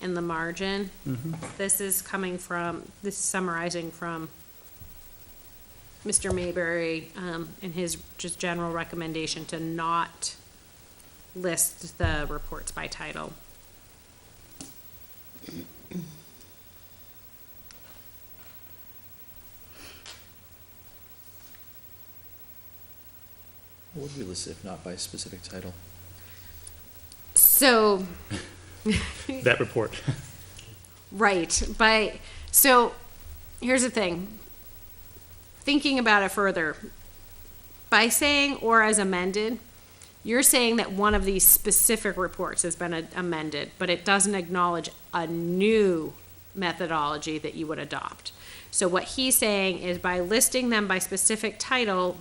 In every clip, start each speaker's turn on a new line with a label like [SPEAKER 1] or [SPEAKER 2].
[SPEAKER 1] in the margin. This is coming from, this is summarizing from Mr. Mayberry, um, and his just general recommendation to not list the reports by title.
[SPEAKER 2] What would we list if not by specific title?
[SPEAKER 1] So,
[SPEAKER 3] that report.
[SPEAKER 1] Right, but so here's the thing. Thinking about it further, by saying or as amended, you're saying that one of these specific reports has been a- amended, but it doesn't acknowledge a new methodology that you would adopt. So what he's saying is by listing them by specific title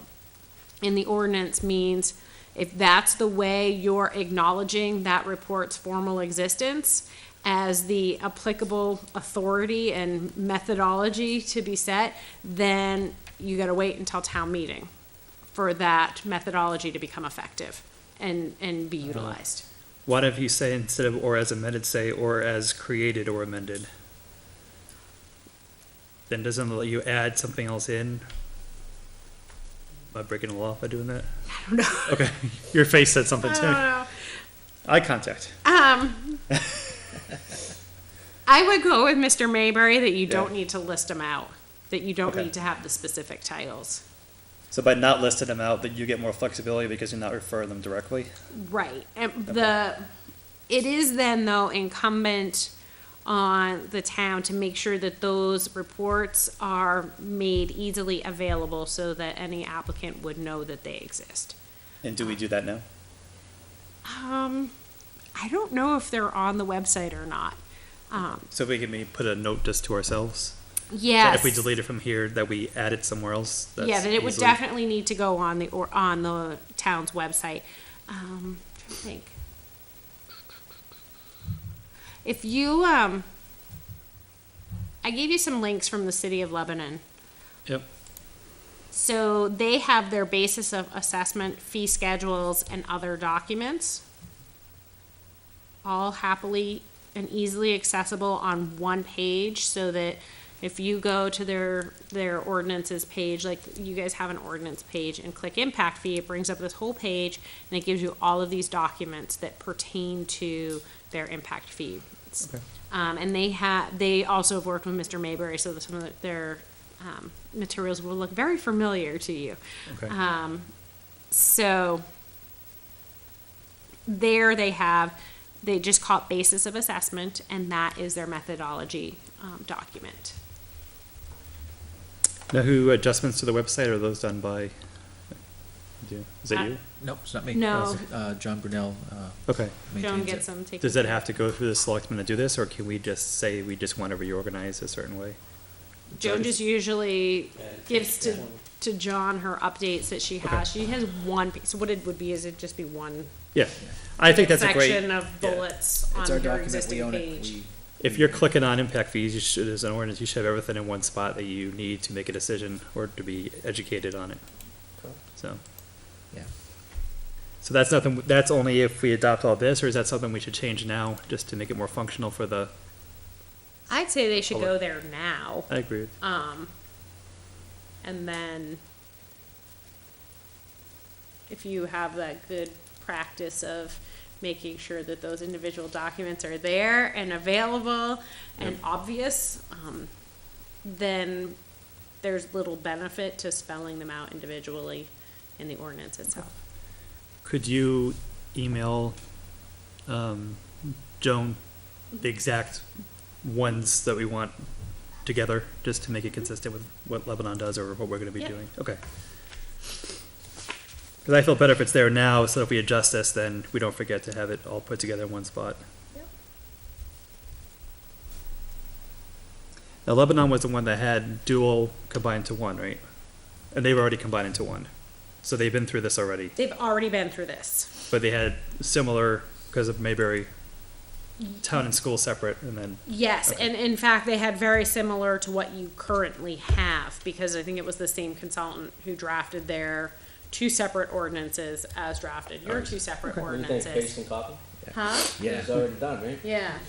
[SPEAKER 1] in the ordinance means if that's the way you're acknowledging that report's formal existence as the applicable authority and methodology to be set, then you gotta wait until town meeting for that methodology to become effective and, and
[SPEAKER 3] Uh-huh.
[SPEAKER 1] be utilized.
[SPEAKER 3] Why don't you say instead of or as amended, say or as created or amended? Then doesn't it let you add something else in? Am I breaking the law by doing that? I
[SPEAKER 1] don't know.
[SPEAKER 3] Okay, your face said something
[SPEAKER 1] I
[SPEAKER 3] to
[SPEAKER 1] don't
[SPEAKER 3] me.
[SPEAKER 1] know.
[SPEAKER 3] Eye contact.
[SPEAKER 1] Um, I would go with Mr. Mayberry that you don't
[SPEAKER 3] Yeah.
[SPEAKER 1] need to list them out, that you don't
[SPEAKER 3] Okay.
[SPEAKER 1] need to have the specific titles.
[SPEAKER 3] So by not listing them out, that you get more flexibility because you're not referring them directly?
[SPEAKER 1] Right, and the, it is then though incumbent on the town to make sure that those reports are made easily available so that any applicant would know that they exist.
[SPEAKER 3] And do we do that now?
[SPEAKER 1] Um, I don't know if they're on the website or not. Um,
[SPEAKER 3] So we can maybe put a note just to ourselves? that
[SPEAKER 1] yes.
[SPEAKER 3] If we delete it from here, that we add it somewhere else?
[SPEAKER 1] Yeah,
[SPEAKER 3] that's
[SPEAKER 1] that it would
[SPEAKER 3] easily-
[SPEAKER 1] definitely need to go on the, or on the town's website. Um, trying to think. If you, um, I gave you some links from the city of Lebanon.
[SPEAKER 3] Yep.
[SPEAKER 1] So they have their basis of assessment, fee schedules, and other documents. All happily and easily accessible on one page so that if you go to their, their ordinances page, like you guys have an ordinance page and click impact fee, it brings up this whole page and it gives you all of these documents that pertain to their impact fee.
[SPEAKER 3] Okay.
[SPEAKER 1] Um, and they have, they also have worked with Mr. Mayberry, so that some of the- their, um, materials will look very familiar to you.
[SPEAKER 3] Okay.
[SPEAKER 1] Um, so there they have, they just call it basis of assessment, and that is their methodology, um, document.
[SPEAKER 3] Now, who adjustments to the website are those done by? do- Is
[SPEAKER 1] Uh,
[SPEAKER 3] that you?
[SPEAKER 2] Nope, it's not me.
[SPEAKER 1] No.
[SPEAKER 2] Uh, John Brunel, uh,
[SPEAKER 3] Okay.
[SPEAKER 1] Joan
[SPEAKER 2] maintains
[SPEAKER 1] gets
[SPEAKER 2] it.
[SPEAKER 1] them taken.
[SPEAKER 3] Does that have to go through the selectmen to do this, or can we just say we just want to reorganize a certain way?
[SPEAKER 1] Joan just usually gives to, to John her updates that she has. She has one, piece. so what it would be is it'd just be one
[SPEAKER 3] Yeah, I think that's a
[SPEAKER 1] section
[SPEAKER 3] great,
[SPEAKER 1] of
[SPEAKER 3] yeah.
[SPEAKER 1] bullets on
[SPEAKER 2] It's our
[SPEAKER 1] her
[SPEAKER 2] document, we
[SPEAKER 1] existing
[SPEAKER 2] own it.
[SPEAKER 1] page.
[SPEAKER 2] We-
[SPEAKER 3] if you're clicking on impact fees, you should, as an ordinance, you should have everything in one spot that you need to make a decision or to be educated on it. So,
[SPEAKER 2] Yeah.
[SPEAKER 3] so that's nothing, that's only if we adopt all this, or is that something we should change now, just to make it more functional for the,
[SPEAKER 1] I'd say they should
[SPEAKER 3] Hold it.
[SPEAKER 1] go there now.
[SPEAKER 3] I agree with
[SPEAKER 1] Um, and then if you have that good practice of making sure that those individual documents are there and available and
[SPEAKER 3] Yep.
[SPEAKER 1] obvious, um, then there's little benefit to spelling them out individually in the ordinance itself.
[SPEAKER 3] Could you email um, Joan the exact ones that we want together, just to make it consistent with what Lebanon does or what we're going to be
[SPEAKER 1] Yeah.
[SPEAKER 3] doing? Okay. Because I feel better if it's there now, so if we adjust this, then we don't forget to have it all put together in one spot.
[SPEAKER 1] Yep.
[SPEAKER 3] Now Lebanon was the one that had dual combined to one, right? And they've already combined into one, so they've been through this already
[SPEAKER 1] They've already been through this.
[SPEAKER 3] but they had similar because of Mayberry town and school separate and then
[SPEAKER 1] Yes,
[SPEAKER 3] Okay.
[SPEAKER 1] and in fact, they had very similar to what you currently have, because I think it was the same consultant who drafted their two separate ordinances as drafted, your two separate
[SPEAKER 4] Everything's paste
[SPEAKER 1] ordinances.
[SPEAKER 4] and copy?
[SPEAKER 1] Huh?
[SPEAKER 2] Yeah.
[SPEAKER 4] It's already done, right?
[SPEAKER 1] Yeah.